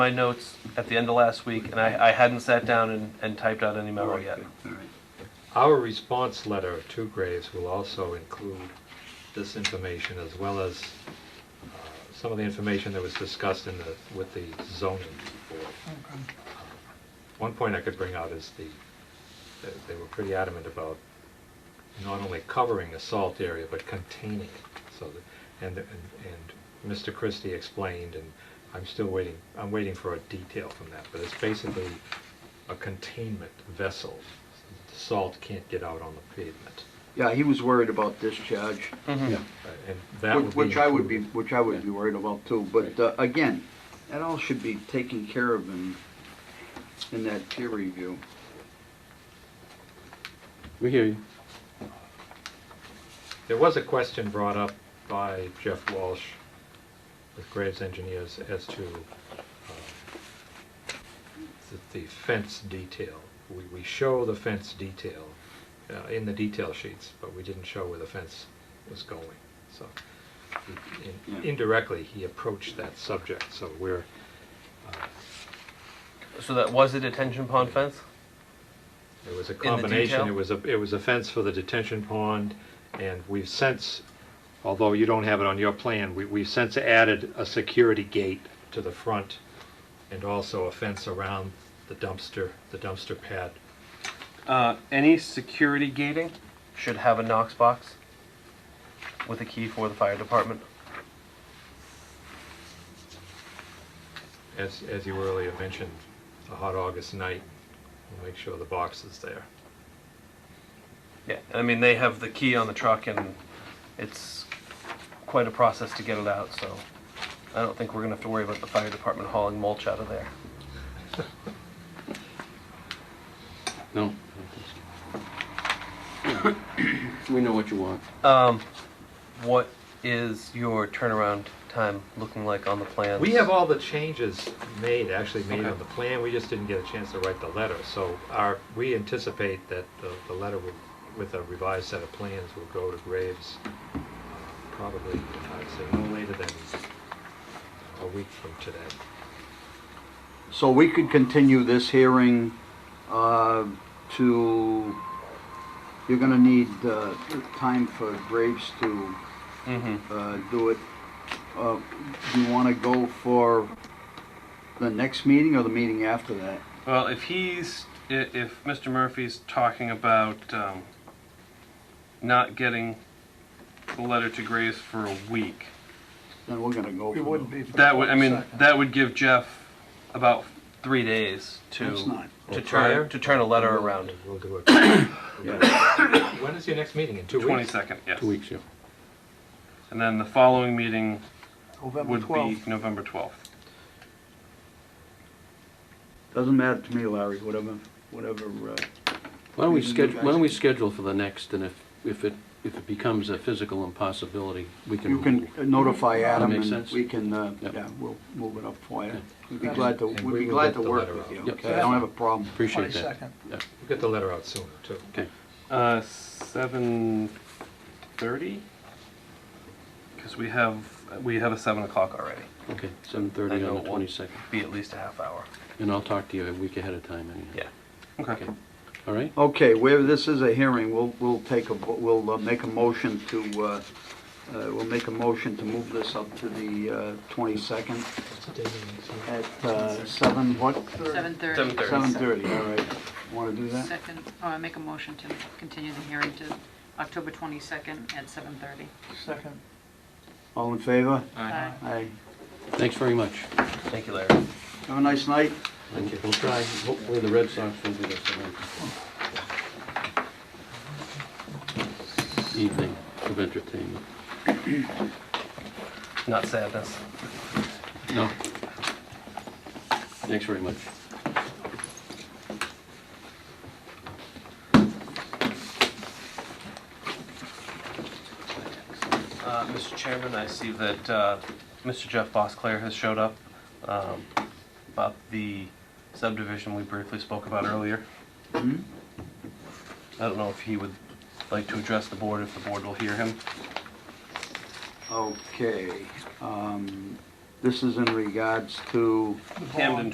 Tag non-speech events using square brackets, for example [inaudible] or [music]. my notes at the end of last week, and I, I hadn't sat down and, and typed out any memo yet. All right. Our response letter to Graves will also include this information as well as uh, some of the information that was discussed in the, with the zoning board. One point I could bring out is the, that they were pretty adamant about not only covering a salt area, but containing it. So, that- and, and and Mr. Christie explained, and I'm still waiting, I'm waiting for a detail from that, but it's basically a containment vessel. The Salt can't get out on the pavement. Yeah, he was worried about discharge, Mhm. uh, And that would which- be. which I would be, included. which I would be worried about too. But uh, again, that all should be taken care of in, in that peer review. We hear you. There was a question brought up by Jeff Walsh with Graves Engineers as to uh, the- the fence detail. We, we show the fence detail uh, in the detail sheets, but we didn't show where the fence was going. So in- Yeah. indirectly, he approached that subject, so we're, So that was a detention pond fence? It was a the combination, detail? it was a, it was a fence for the detention pond, and we've since, although you don't have it on your plan, we, we've since added a security gate to the front, and also a fence around the dumpster, the dumpster pad. Uh, any security gating? Should have a Knox box with a key for the fire department. As, as you earlier mentioned, a hot August night, we'll make sure the box is there. Yeah, I mean, they have the key on the truck and it's quite a process to get it out, so I don't think we're gonna have to worry about the fire department hauling mulch out of there. No. We know what you want. Um, what is your turnaround time looking like on the plans? We have all the changes made, actually made Okay. on the plan, we just didn't get a chance to write the letter, so our, we anticipate that the, the letter will, with a revised set of plans will go to Graves uh, probably, I'd say, no later than a week from today. So we could continue this hearing uh, to, you're gonna need uh, time for Graves to Mm-hmm. uh, do it. Uh, You wanna go for the next meeting or the meeting after that? Well, if he's, i- if Mr. Murphy's talking about um, not getting the letter to Graves for a week, Then we're gonna go for. We wouldn't be. that would, I mean, that would give Jeff about, Three days to. That's not, to Or prior? turn to turn a letter around. We'll do it. [coughs] yeah, When is your next meeting, in two twenty weeks? second, yes. two weeks, yeah. And then the following meeting November would be 12th. November twelfth. doesn't matter to me, Larry, whatever, whatever, uh, Why don't we Even you schedule, why guys- don't we schedule for the next, and if, if it, if it becomes a physical impossibility, we can. you can notify Adam makes and sense. we can, uh, Yep. yeah, we'll move it up for you. Yeah. We'd be glad to, And we'd we be will glad get to the work letter with out. you, Yep. okay? I don't have a problem. Appreciate that. 22nd. We'll get the letter out sooner, too. Okay, Uh, seven thirty? Because we have, we have a seven o'clock already. okay, seven thirty I on know the it won't. twenty-second, Be at least a half hour. and I'll talk to you a week ahead of time anyhow. Yeah. Okay. Yeah. All right, Okay, where this is a hearing, we'll, we'll take a, vo- we'll uh, make a motion to, uh, uh, we'll make a motion to move this up to the uh, 22nd at uh, 7, what? 7:30. 7:30, all right. Want to do that? Second, oh, I make a motion to continue the hearing to October 22nd at 7:30. Second. All in favor? Aye. Aye. thanks very much. Thank you, Larry. Have a nice night. Thank you. We'll try, hopefully the Red Sox will beat us tonight. Evening of entertainment, Not sadness. no. Thanks very much. Uh, Mr. Chairman, I see that uh, Mr. Jeff Bosclair has showed up um, about the subdivision we briefly spoke about earlier. Mhm. I don't know if he would like to address the board, if the board will hear him. Okay. um, This is in regards to Camden